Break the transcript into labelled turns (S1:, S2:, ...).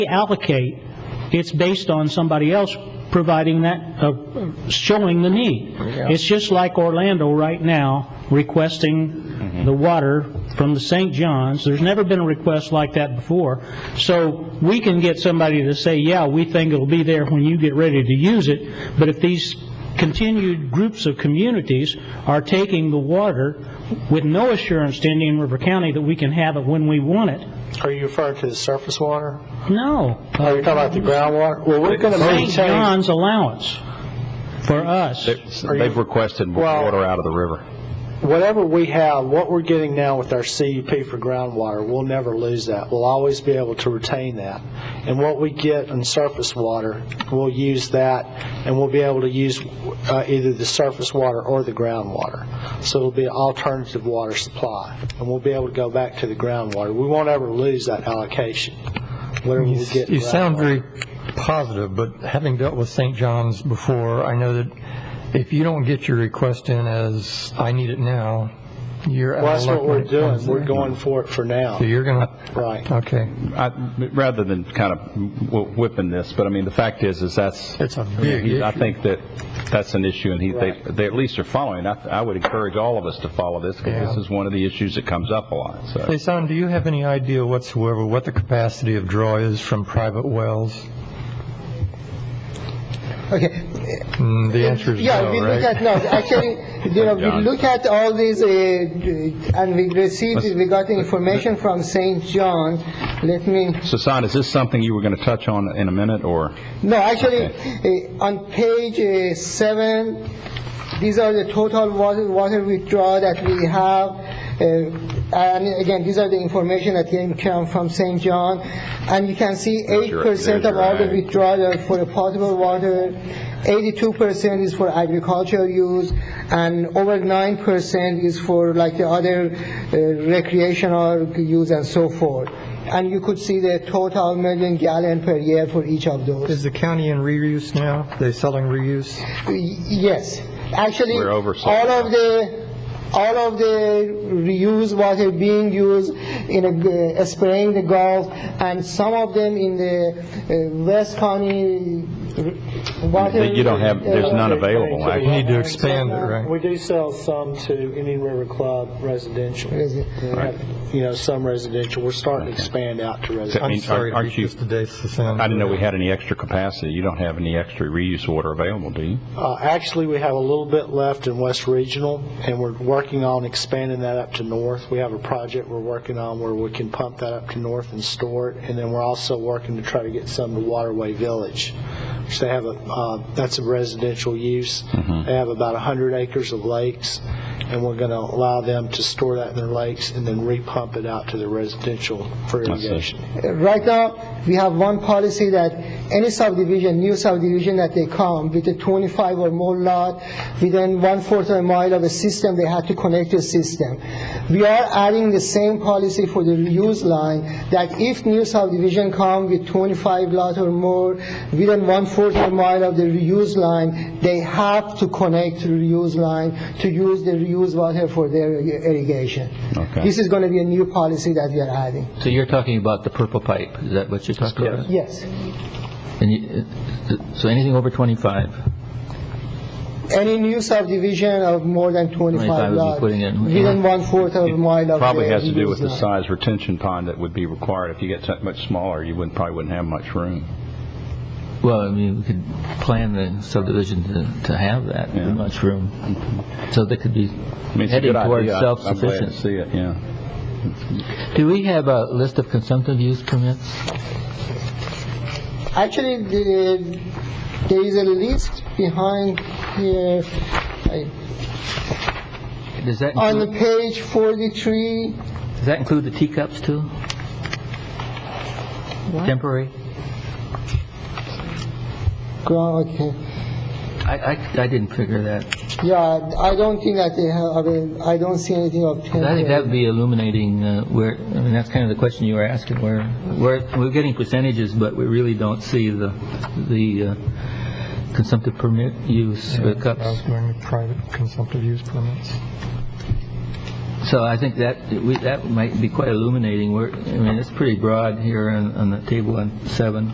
S1: allocate, it's based on somebody else providing that, uh, showing the need. It's just like Orlando right now requesting the water from the St. John's. There's never been a request like that before. So we can get somebody to say, yeah, we think it'll be there when you get ready to use it, but if these continued groups of communities are taking the water with no assurance to Indian River County that we can have it when we want it,
S2: Are you referring to the surface water?
S1: no.
S2: Are you talking about the groundwater? Well, we're going to
S1: St.
S2: maintain,
S1: John's allowance for us.
S2: Are you-
S3: They've requested more
S2: Well-
S3: water out of the river.
S2: whatever we have, what we're getting now with our CUP for groundwater, we'll never lose that. We'll always be able to retain that. And what we get in surface water, we'll use that, and we'll be able to use uh, either the surface water or the groundwater. So it'll be an alternative water supply, and we'll be able to go back to the groundwater. We won't ever lose that allocation, whatever we get. in
S4: You sound
S2: groundwater.
S4: very positive, but having dealt with St. John's before, I know that if you don't get your request in as, I need it now, you're
S2: Well,
S4: out
S2: that's
S4: of luck.
S2: what we're
S4: when it comes
S2: doing. We're
S4: there.
S2: going for it for now.
S4: So you're going to,
S2: Right.
S4: okay.
S3: I- Rather than kind of w- whipping this, but I mean, the fact is, is that's,
S4: It's a
S3: I
S4: big
S3: mean, I
S4: issue.
S3: think that that's an issue, and he, they,
S2: Right.
S3: they at least are following. I, I would encourage all of us to follow this,
S4: Yeah.
S3: because this is one of the issues that comes up a lot, so.
S4: Hey, Son, do you have any idea whatsoever what the capacity of draw is from private wells?
S5: Okay.
S4: Mm, The answer is
S5: Yeah,
S4: no,
S5: we look
S4: right?
S5: at, no, actually, you know, we
S3: John.
S5: look at all these, uh, and we received, we got information from St. John. Let me,
S3: Sasan, is this something you were going to touch on in a minute, or?
S5: no, actually, uh, on page uh, seven, these are the total water, water withdrawal that we have. uh, And again, these are the information that came come from St. John. And you can see
S3: There's
S5: eight
S3: your-
S5: percent
S3: there's
S5: of
S3: your
S5: all the
S3: ag.
S5: withdrawal are for the potable water, eighty-two percent is for agricultural use, and over nine percent is for like the other uh, recreational use and so forth. And you could see the total million gallon per year for each of those.
S4: Is the county in reuse now? They selling reuse?
S5: Y- Yes, actually,
S3: We're oversold.
S5: all of the, all of the reused water being used in a g- uh, spraying the Gulf, and some of them in the uh, West County uh, water.
S3: That you don't have- there's none available,
S4: You
S3: actually.
S4: need to expand it, right?
S2: We do sell some to Indian River Club residential.
S5: Resi-
S2: We have, You know, some residential. We're starting to expand out to residential.
S3: I mean,
S4: I'm sorry to
S3: aren't
S4: beat
S3: you-
S4: this to death, Sasan.
S3: I didn't know we had any extra capacity. You don't have any extra reuse water available, do you?
S2: Uh, Actually, we have a little bit left in West Regional, and we're working on expanding that up to north. We have a project we're working on where we can pump that up to north and store it, and then we're also working to try to get some to Waterway Village, which they have, a uh, that's a residential use. They have about 100 acres of lakes, and we're going to allow them to store that in their lakes and then repump it out to the residential for
S3: see.
S2: irrigation.
S5: Right now, we have one policy that any subdivision, new subdivision that they come with a 25 or more lot, within one-fourth of a mile of a system, they have to connect to a system. We are adding the same policy for the reuse line, that if new subdivision come with 25 lot or more, within one-fourth of a mile of the reuse line, they have to connect to the reuse line to use the reuse water for their irrigation.
S3: Okay.
S5: This is going to be a new policy that we are adding.
S6: So you're talking about the purple pipe, is that what you're talking about?
S5: Yes.
S6: And you- uh, So anything over 25?
S5: Any new subdivision of more than 25
S6: 25 would be
S5: lots.
S6: putting in-
S5: Within one-fourth of a mile of.
S3: Probably
S5: the
S3: has to do with the
S5: reuse line.
S3: size retention pond that would be required. If you get that much smaller, you wouldn't, probably wouldn't have much room.
S6: Well, I mean, we could plan the subdivision to to have that,
S3: Yeah. Mm-hmm.
S6: much room, so they could be
S3: I mean, it's a
S6: heading
S3: good
S6: towards
S3: idea. I'm- I'm glad to
S6: self-sufficient.
S3: see it, yeah.
S6: Do we have a list of consumptive use permits?
S5: Actually, the- there is a list behind here, I-
S6: Does that,
S5: on the
S6: include-
S5: page 43.
S6: does that include the teacups too? Temporary?
S5: Ground- okay.
S6: I, I, I didn't figure that.
S5: Yeah, I don't think that they have, I mean, I don't see anything of 10.
S6: I think that would be illuminating uh, where, I mean, that's kind of the question you were asking, where, where, we're getting percentages, but we really don't see the, the uh, consumptive permit use, uh,
S4: I was
S6: cups.
S4: going to private consumptive use permits.
S6: So I think that, we- that might be quite illuminating. We're, I mean, it's pretty broad here on on the table on seven.